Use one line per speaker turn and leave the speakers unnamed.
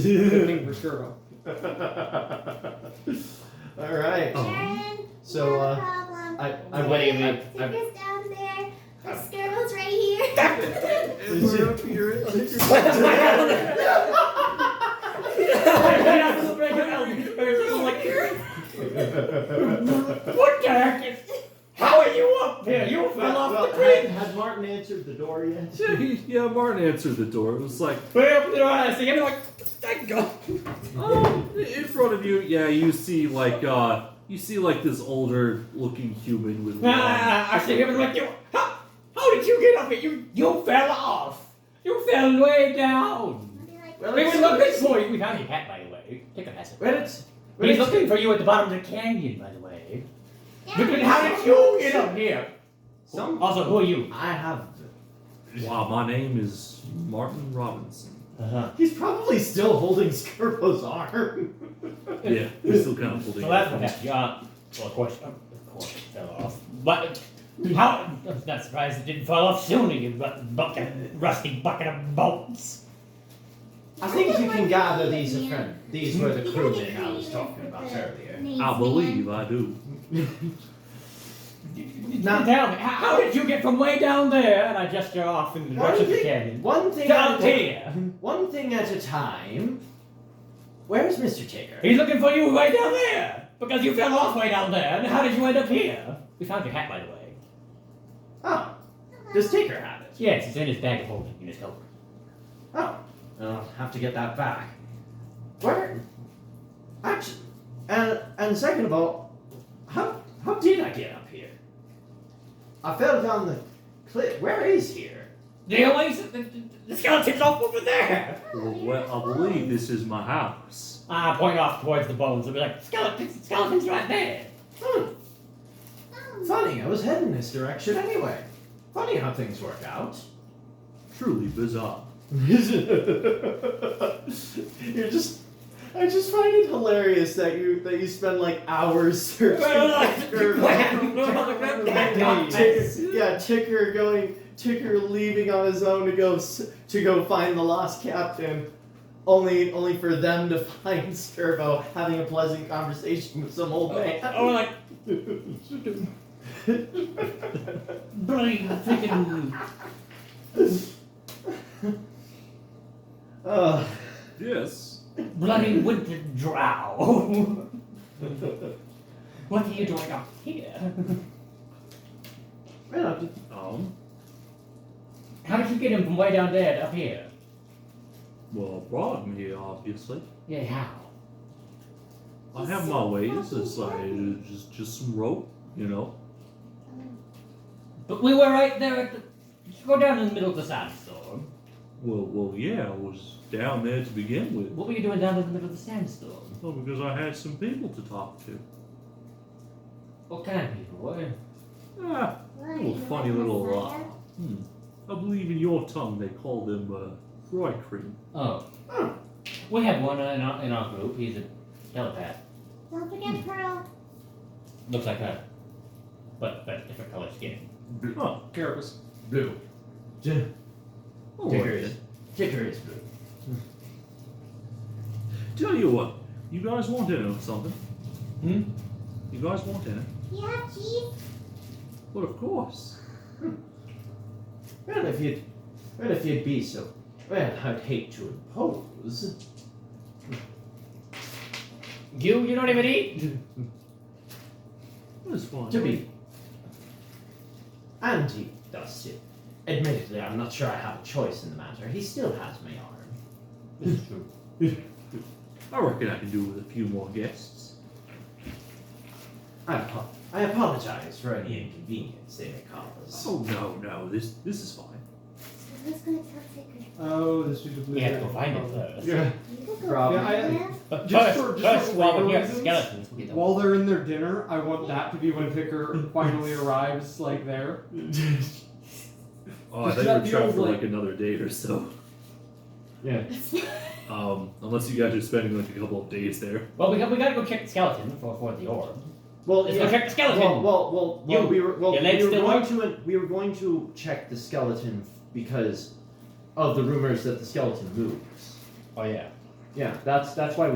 Good name for sure.
All right.
Oh.
Sharon,
So,
you
uh,
have a problem.
I I
Wait,
went. I, I,
Tinker's down there. The skirrel's right here.
What the heck is? How are you up there? You fell
well,
off the
had,
grid.
had Martin answered the door yet?
Yeah, he, yeah, Martin answered the door. It was like,
Well, you know, I see him like, thank God.
oh, in front of you. Yeah, you see like, uh, you see like this older looking human with. long-
Ah, I see him like you. How, how did you get up it? You you fell off. You fell way down.
I'll be like,
Well,
We
it's-
were looking for you. We found your hat, by the way. Take a pass.
Well, it's. well,
We're
it's-
looking for you at the bottom of the canyon, by the way. Look
"Dad,
at how did you get up here?
Some.
Also, who are you?
I have.
Wow, my name is Martin Robinson.
Uh-huh.
He's probably still holding Skirbo's arm.
Yeah, we're still kind of holding.
So that's what happened. Yeah. Well, of course, of course, it fell off. But how? I'm not surprised it didn't fall off sooner. You bu- bucket, rusty bucket of bolts.
I think you can gather these are friend. These were the crewmen I was talking about earlier.
name's
I
man."
believe I do.
Now tell me, how, how did you get from way down there? And I gesture off in the
One
direction of the
thing-
canyon.
One thing.
Down
at a-
here.
One thing at a time. Where's Mr. Tigger?
He's looking for you way down there because you fell off way down there. And how did you end up here? We found your hat, by the way.
Oh, does Tigger have it?
Yes, it's in his bag of holding in his coat.
Oh, I'll have to get that back. Where? Actually, and and second of all, how how did I get up here? I fell down the cliff. Where is here?
The oasis, the, the- the skeleton's off over there.
Well, well, I believe this is my house.
I point off towards the bones and be like, skeletons, skeletons right there.
Hmm.
Oh,
Funny, I was heading this direction anyway. Funny how things work out.
Truly bizarre.
You're just. I just find it hilarious that you that you spend like hours searching. for- Ticker, yeah, Ticker going, Ticker leaving on his own to go s- to go find the lost captain, only only for them to find Sturbo having a pleasant conversation with some old man.
Or like, bloody freaking.
Ugh.
Yes.
Bloody winter drow. what are you doing up here?
Man, I'm-
Um.
How did you get him from way down there to up here?
Well, I brought him here, obviously.
Yeah, how?
I have my ways. It's like just just some rope, you know.
But we were right there at the. Go down in the middle of the sandstorm.
Well, well, yeah, I was down there to begin with.
What were you doing down in the middle of the sandstorm?
Well, because I had some people to talk to.
What kind of people were?
Ah,
what,
little
you
funny
have
little,
a
uh,
fire?
hmm. I believe in your tongue they call them uh, fry cream.
Oh. We have one in our, in our group. He's a telepath.
Don't forget Pearl.
Looks like her. But, but different color skin.
Huh.
Carapace.
blue. J-
all right
Ticker is
then.
Ticker is blue.
Tell you what, you guys want in on something?
Hmm?
You guys want in?
You have cheese?
Well, of course.
Well, if you'd, well, if you'd be so, well, I'd hate to impose.
You, you don't even eat?
That's fine.
To be anti does it. Admittedly, I'm not sure I have a choice in the matter. He still has my arm.
This is true.
I reckon I can do with a few more guests.
I, apo- I apologize for any inconvenience they may cause.
Oh no, no, this this is fine.
Who's gonna tell Tinker?
Oh, this is a blue.
We have to go find
dragon.
it first.
Yeah.
You could go
Rob.
Yeah, I-
there.
But first,
Just for- just
first,
for
while
legal
we have
reasons?
skeletons, we get the
While they're in their dinner, I want that to be when Picker finally arrives, like there.
Oh, I
Is
think
that
we're
the
trapped
old
for like
lady?
another date or so.
yeah.
Um, unless you guys are spending like a couple of days there.
Well, we got, we gotta go check the skeleton for, for the orb.
Well,
Let's
yeah.
go check the
well,
skeleton.
well, well, well,
You-
we were well,
your
we
legs
were
still
going to we were going to check the skeleton f- because of the rumors that the skeleton moves.
oh yeah.
Yeah, that's that's why